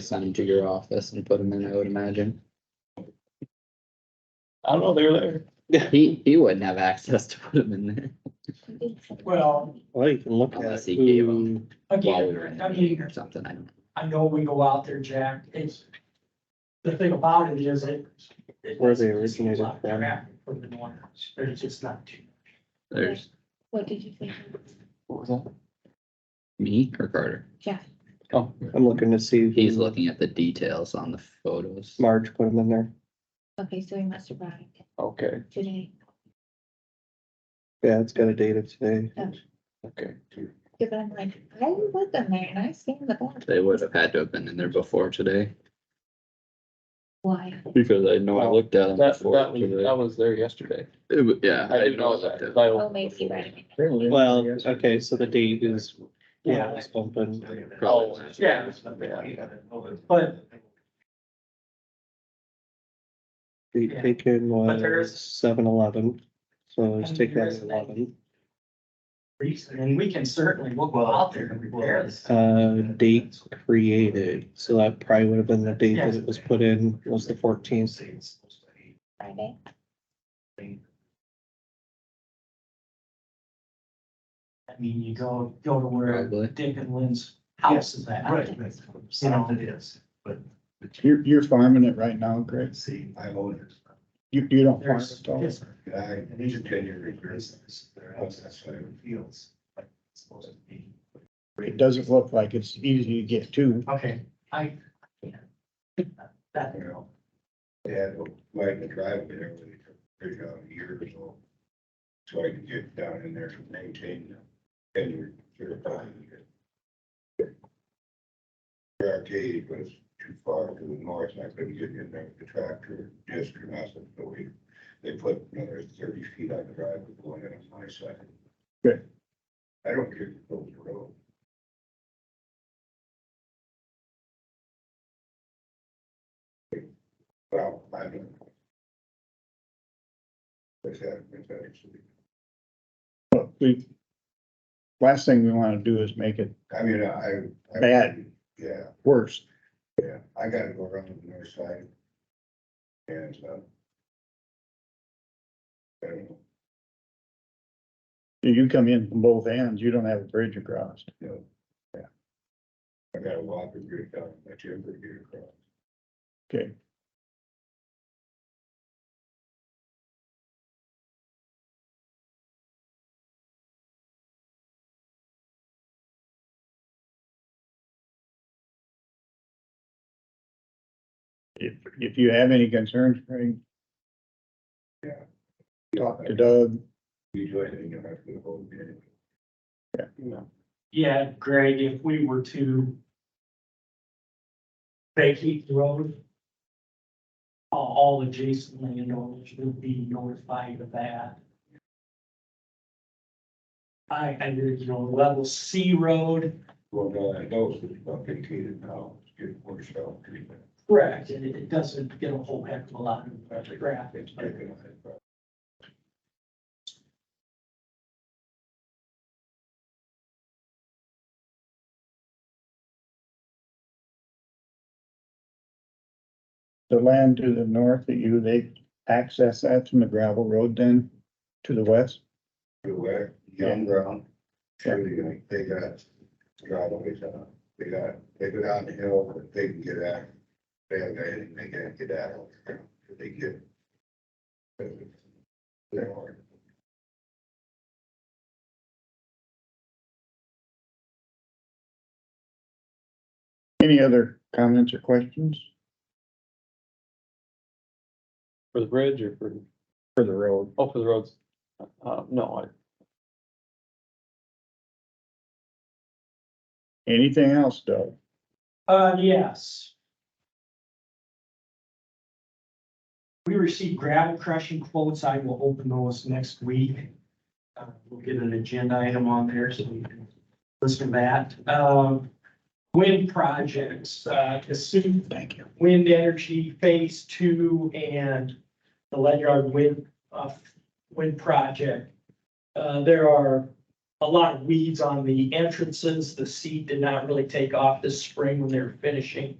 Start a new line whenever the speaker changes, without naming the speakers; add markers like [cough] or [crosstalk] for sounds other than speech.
send them to your office and put them in, I would imagine.
I don't know, they're there.
He, he wouldn't have access to put them in
[laughs]
there.
Well,
Well, you can look at
Unless he gave
who,
them while we were
again,
in
I
a meeting
mean,
or something, I don't.
I know we go out there, Jack, it's, the thing about it is it. it-
Where they originated
Lot of
from.
traffic From the north, there's just not too.
There's
What did you think?
What was that?
me or Carter.
Oh,
I'm looking to see.
He's
who
looking at the details on the photos.
Marge put them in there.
Okay, so he must have arrived
okay,
today.
Yeah, it's got a date of today.
okay.
Cause I'm like, I was in there and I seen the board.
They would have had to have been in there before today.
Why?
Because I know I looked at them
That, that
before.
was,
today.
that was there yesterday.
It wa- Yeah.
I didn't know
looked
that.
at them.
'cause I
Oh,
opened
maybe
before.
right.
Well, okay, so the date is, yeah, it's open.
Probably.
Oh, Yeah. But,
Date taken
But there is-
was seven eleven, so just
And
take
there
that
is an
eleven.
and we can certainly, we'll go out there and repair this.
Uh, date created, so that probably would have been the date that it was put in, was the fourteenth.
Friday?
I mean, you go, go to where
Probably.
Dick and Lynn's house is at.
Right.
You know,
You're, you're farming it right now, Greg? See, I own it. You, you don't farm
there's,
it all?
it's-
I, these are ten year regrets. That's what it feels like it's supposed to be. It doesn't look like it's easy to get to.
okay, I. That,
Yeah, like the driveway there, we took, there's a year or so. So I can get down in there to maintain them. And you're, you're fine. The Arcade was too far to the north, and I couldn't get in there with the tractor, just or nothing, so we, they put another thirty feet on the driveway going in on my side.
Good.
I don't care if it goes the road. Well, I don't. Is that, is that actually?
we, last thing we wanna do is make it
I mean, I. I-
Bad.
Yeah,
worse.
yeah, I gotta go around the north side. And, um. I don't know,
You come in from both ends, you don't have a bridge across.
you know, yeah. I gotta walk and get down, my timber to get across.
Okay, if, if you have any concerns, Craig, talk to Doug.
You do anything, you have to hold me.
yeah, Greg, if we were to. Vacate the road. All, all adjacent landowners would be notified of that. I, I did, you know, level C road,
Well, no, I know it's about vacated now, it's getting worse out.
Correct, and it, it doesn't get a whole heck of a lot of traffic,
It's
but
taken, I think,
The land to the north of you, they access that from the gravel road then to the west?
The wet, young ground, sure they got, they got driveways on, it. they got, they go down the hill, but they can get out. They have, anything they can get out, they get. They're hard.
Any other comments or questions
For the bridge or for,
for the road?
oh, for the roads? Uh, no, I,
Anything else, Doug?
Uh, yes. We received gravel crushing quotes. I will open those next week. Uh, we'll get an agenda item on there so we can listen to that. Um, wind projects, uh, assume. Thank you. Wind energy phase two and the Ledyard wind, uh, wind project. Uh, there are a lot of weeds on the entrances. The seed did not really take off this spring when they were finishing.